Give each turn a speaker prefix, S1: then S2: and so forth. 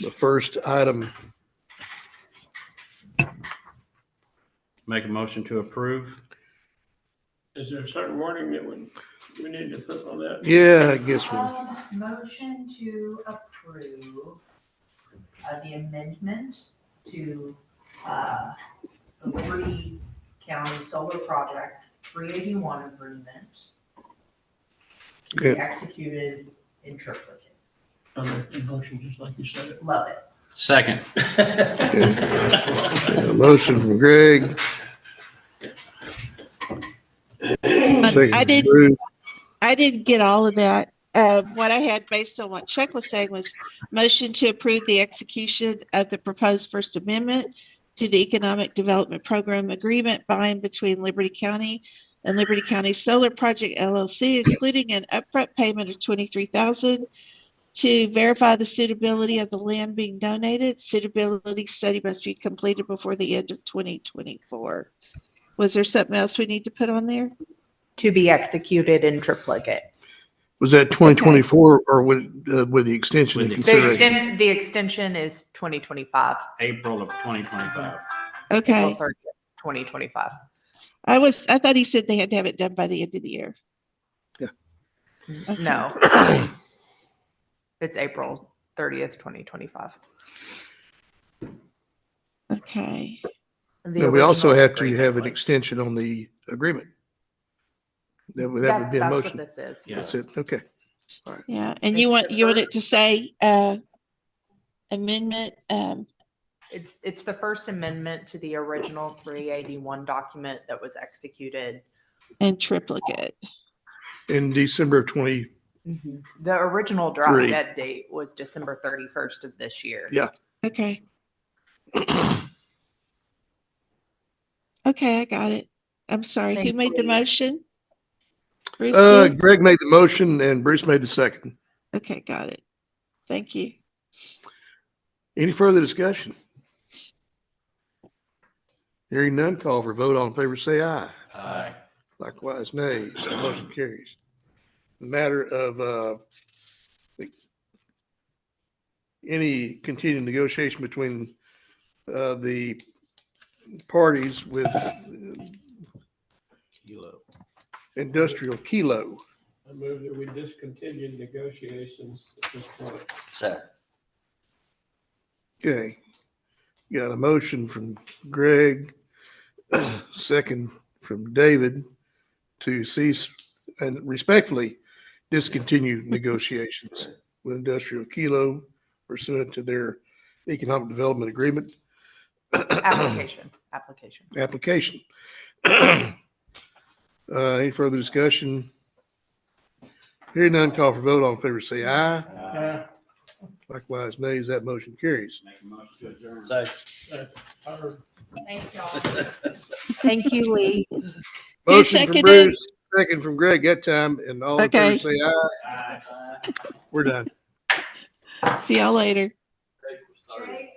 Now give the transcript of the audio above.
S1: The first item,
S2: Make a motion to approve.
S3: Is there a certain wording that we, we need to put on that?
S1: yeah, I guess we,
S4: Um, Motion to approve uh, the amendment to uh, the Liberty County Solar Project 381 agreement to be
S1: Okay.
S4: executed in triplicate.
S3: I'll make the motion just like you said
S4: Love it.
S2: Second.
S3: it.
S1: a motion from Greg.
S5: But
S1: second
S5: I
S1: from
S5: did,
S1: Bruce.
S5: I did get all of that. Uh, what I had based on what Chuck was saying was motion to approve the execution of the proposed First Amendment to the Economic Development Program Agreement by and between Liberty County and Liberty County Solar Project LLC, including an upfront payment of twenty-three thousand to verify the suitability of the land being donated. Suitability study must be completed before the end of twenty twenty-four. Was there something else we need to put on there?
S6: to be executed in triplicate.
S1: Was that 2024 or with, uh, with the extension?
S2: With
S1: in
S2: the
S6: The
S1: consideration?
S6: extent, the extension is twenty twenty-five,
S2: April of 2025.
S5: Okay.
S6: twenty twenty-five.
S5: I was, I thought he said they had to have it done by the end of the year.
S1: Yeah.
S5: Okay.
S6: No. It's April thirtieth, twenty twenty-five.
S5: Okay,
S1: No, we also have to have an extension on the agreement. That would, that would be a motion.
S6: That's what this is.
S2: Yeah.
S1: That's it, okay.
S5: yeah, and you
S6: It's
S5: want, you want
S6: deferred.
S5: it to say, uh, amendment, um,
S6: It's, it's the first amendment to the original three eighty-one document that was executed.
S5: and triplicate.
S1: In December of 20,
S6: The original
S1: Three.
S6: drop dead date was December thirty-first of this year.
S1: Yeah.
S5: Okay. Okay, I got it. I'm sorry. Who
S6: Thanks,
S5: made the
S6: Lee.
S5: motion? Bruce
S1: uh,
S5: did?
S1: Greg made the motion and Bruce made the second.
S5: Okay, got it. Thank you.
S1: Any further discussion? Hearing none, call for vote. All in favor, say aye.
S2: Aye.
S1: Likewise, nay. So motion carries. The Matter of, uh, the- any continued negotiation between, uh, the parties with
S2: Kilo.
S1: industrial kilo.
S3: I move that we discontinue negotiations at this point.
S1: Okay. Got a motion from Greg, second from David to cease and respectfully discontinue negotiations with Industrial Kilo pursuant to their economic development agreement
S6: Application, application.
S1: application. Uh, any further discussion? Hearing none, call for vote. All in favor, say aye.
S3: Uh,
S1: Likewise, nays. That motion carries.
S2: Make a motion to adjourn.
S3: our-
S4: Thank y'all.
S6: Thank you, Lee.
S5: Who
S1: Motion from
S5: seconded?
S1: Bruce, second from Greg that time, and all in favor
S5: Okay.
S1: say aye. We're done.
S5: See y'all later.
S4: Drake,